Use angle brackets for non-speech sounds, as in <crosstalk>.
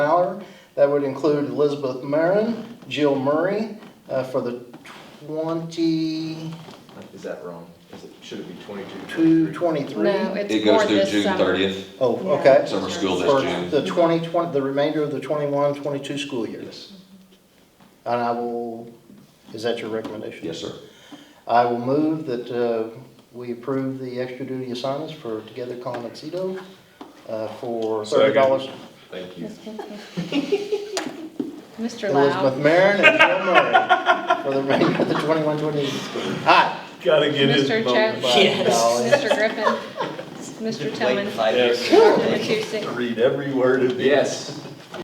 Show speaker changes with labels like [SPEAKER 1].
[SPEAKER 1] That would include Elizabeth Marin, Jill Murray uh, for the 22,
[SPEAKER 2] Is that wrong? Is it, should it be twenty-two?
[SPEAKER 1] 23?
[SPEAKER 3] No, it's
[SPEAKER 4] It
[SPEAKER 3] for
[SPEAKER 4] goes through
[SPEAKER 3] this
[SPEAKER 4] June
[SPEAKER 3] summer. <laughs>
[SPEAKER 4] thirtieth,
[SPEAKER 1] Oh,
[SPEAKER 3] Yeah.
[SPEAKER 1] okay.
[SPEAKER 4] summer school
[SPEAKER 1] For
[SPEAKER 4] this June.
[SPEAKER 1] the 2020, the remainder of the 21, 22 school year.
[SPEAKER 4] Yes,
[SPEAKER 1] And I will, is that your recommendation?
[SPEAKER 4] yes, sir.
[SPEAKER 1] I will move that uh, we approve the extra duty assignments for Together Con Exito uh, for thirty dollars.
[SPEAKER 2] Thank you.
[SPEAKER 3] Ms. Kincaid. Mr.
[SPEAKER 1] Elizabeth
[SPEAKER 3] Lau,
[SPEAKER 1] Marin and Jill Murray for the remainder of the twenty-one, twenty-eight school. year. Aye.
[SPEAKER 5] Gotta get his
[SPEAKER 3] Mr.
[SPEAKER 5] vote.
[SPEAKER 3] Chad,
[SPEAKER 1] Yes.
[SPEAKER 3] Mr. Griffin, Mr. Tillman,
[SPEAKER 2] Late five years.
[SPEAKER 3] and the two six.
[SPEAKER 5] Read every word of it.
[SPEAKER 2] Yes.